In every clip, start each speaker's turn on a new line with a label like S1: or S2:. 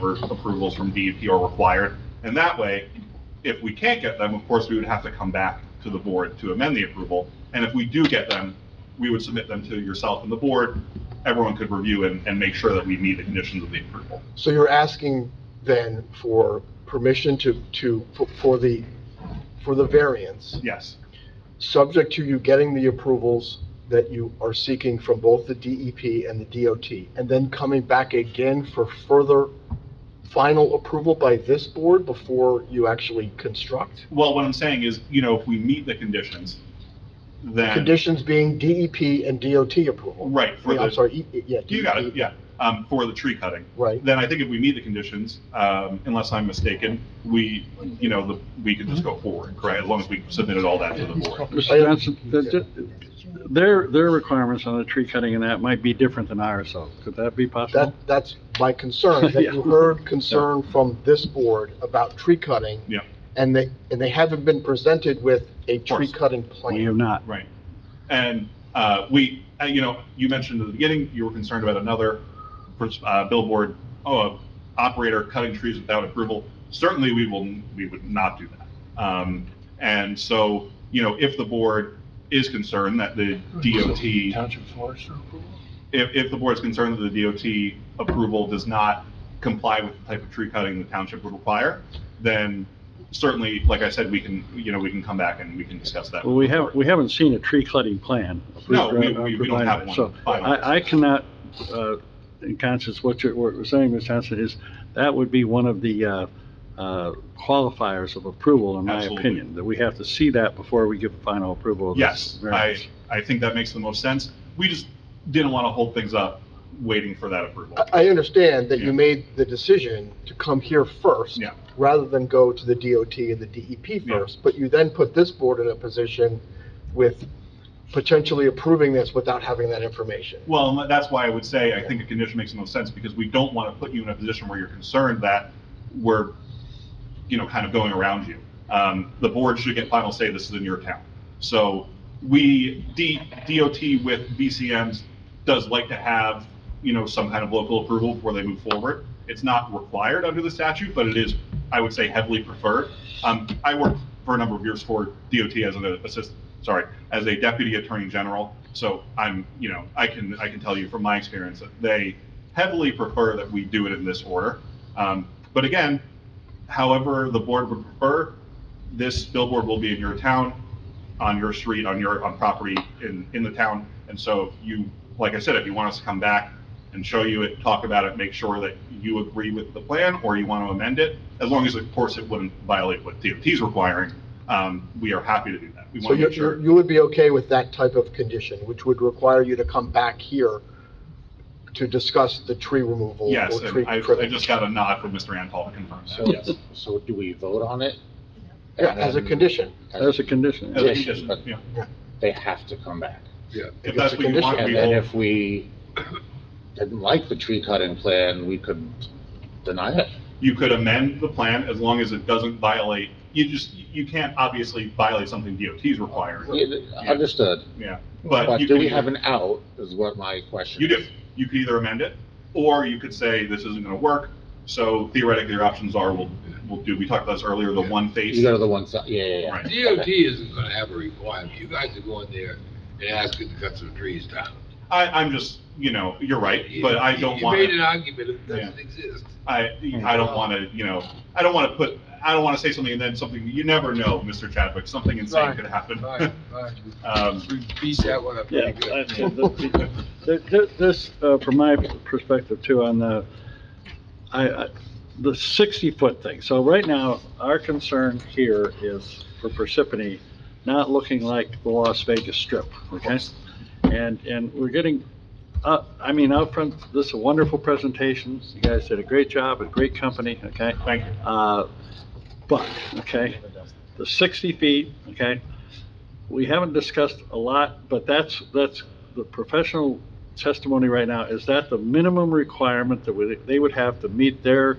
S1: whatever approvals from DEP are required. And that way, if we can't get them, of course, we would have to come back to the board to amend the approval. And if we do get them, we would submit them to yourself and the board. Everyone could review and, and make sure that we meet the conditions of the approval.
S2: So you're asking then for permission to, to, for- for the, for the variance,
S1: Yes,
S2: subject to you getting the approvals that you are seeking from both the DEP and the DOT, and then coming back again for further final approval by this board before you actually construct?
S1: well, what I'm saying is, you know, if we meet the conditions, then,
S2: Conditions being DEP and DOT approval?
S1: right, for
S2: Yeah, I'm
S1: the,
S2: sorry, E- E- yeah.
S1: you got it,
S2: DEP,
S1: yeah, um, for the tree cutting.
S2: Right,
S1: Then I think if we meet the conditions, um, unless I'm mistaken, we, you know, the, we could just go forward, correct? As long as we submitted all that to the board.
S2: I-
S3: Mr. Johnson, that- that- their, their requirements on the tree cutting and that might be different than ours, though. Could that be
S2: that,
S3: possible?
S2: that's my concern, that you
S3: Yeah.
S2: heard concern from this board about tree cutting.
S1: Yeah.
S2: And they, and they haven't been presented with a tree
S1: course.
S2: cutting
S3: We
S2: plan.
S3: have not.
S1: Right. And uh, we, uh, you know, you mentioned at the beginning, you were concerned about another uh, billboard uh, operator cutting trees without approval. Certainly, we will, we would not do that. Um, And so, you know, if the board is concerned that the DOT
S4: Township forester approval?
S1: if, if the board's concerned that the DOT approval does not comply with the type of tree cutting the township would require, then certainly, like I said, we can, you know, we can come back and we can discuss that.
S3: Well, we have, we haven't seen a tree cutting plan.
S1: No, we- we- we don't have one.
S3: So I, I cannot, uh, in conscience, what you're, what you're saying, Mr. Johnson, is that would be one of the, uh, uh, qualifiers of approval, in my
S1: Absolutely.
S3: opinion, that we have to see that before we give final approval of this.
S1: Yes, I,
S3: variance.
S1: I think that makes the most sense. We just didn't want to hold things up waiting for that approval.
S2: I, I understand that
S1: Yeah.
S2: you made the decision to come here first.
S1: Yeah.
S2: Rather than go to the DOT and the DEP
S1: Yeah.
S2: first, but you then put this board in a position with potentially approving this without having that information.
S1: Well, and that's why I would say I think a condition makes the most sense, because we don't want to put you in a position where you're concerned that we're, you know, kind of going around you. Um, the board should get final say, this is in your town. So we, D, DOT with VCMs does like to have, you know, some kind of local approval before they move forward. It's not required under the statute, but it is, I would say, heavily preferred. Um, I worked for a number of years for DOT as an assist, sorry, as a deputy attorney general. So I'm, you know, I can, I can tell you from my experience that they heavily prefer that we do it in this order. Um, but again, however the board would prefer, this billboard will be in your town, on your street, on your, on property in, in the town. And so if you, like I said, if you want us to come back and show you it, talk about it, make sure that you agree with the plan or you want to amend it, as long as, of course, it wouldn't violate what DOT's requiring, um, we are happy to do that. We
S2: So
S1: want to
S2: you,
S1: make sure.
S2: you would be okay with that type of condition, which would require you to come back here to discuss the tree removal?
S1: Yes,
S2: or tree
S1: and I, I
S2: trimming?
S1: just got a nod from Mr. Antal to confirm that.
S4: So, so do we vote on it?
S2: Yeah, as a
S4: And then-
S2: condition.
S3: That's a condition.
S1: As a
S4: Yes,
S1: condition,
S4: but-
S1: yeah.
S4: They have to come back.
S1: If that's what you want,
S2: Yeah,
S1: we
S4: And then
S1: will,
S4: if we didn't like the tree cutting plan, we could deny it.
S1: you could amend the plan as long as it doesn't violate, you just, you can't obviously violate something DOT's requiring,
S4: Yeah, Understood.
S1: yeah.
S4: But
S1: you
S4: do
S1: can
S4: we
S1: either-
S4: have an out, is what my question
S1: You
S4: is.
S1: do. You could either amend it, or you could say, this isn't gonna work, so theoretically, your options are, we'll, we'll do, we talked about this earlier, the one face.
S4: You go to the one side, yeah, yeah, yeah.
S1: Right.
S5: DOT isn't gonna have a requirement, you guys are going there and asking to cut some trees down.
S1: I, I'm just, you know, you're right,
S5: You-
S1: but I don't
S5: you
S1: want,
S5: made
S1: to.
S5: an argument that doesn't exist.
S1: I, I
S4: Mm-hmm.
S1: don't wanna, you know, I don't wanna put, I don't wanna say something and then something, you never know, Mr. Chadwick, something insane
S5: Right.
S1: could happen.
S5: Fine, fine,
S1: Um,
S5: we beat that one up
S3: Yeah,
S5: pretty good.
S3: I- th- th- th- this, uh, from my perspective too, on the, I, I- the 60-foot thing. So right now, our concern here is for Parsippany not looking like the Las Vegas Strip, okay? And, and we're getting, uh, I mean, out front, this is a wonderful presentation. You guys did a great job, a great company, okay?
S1: Thank you.
S3: Uh, But, okay, the 60 feet, okay, we haven't discussed a lot, but that's, that's the professional testimony right now, is that the minimum requirement that would- they would have to meet their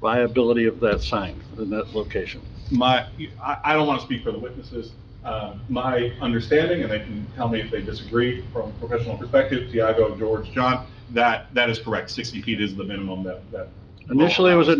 S3: viability of that sign in that location?
S1: my, I, I don't want to speak for the witnesses. Uh, My understanding, and they can tell me if they disagree from a professional perspective, Tiago, George, John, that, that is correct. 60 feet is the minimum that, that
S3: Initially, it was at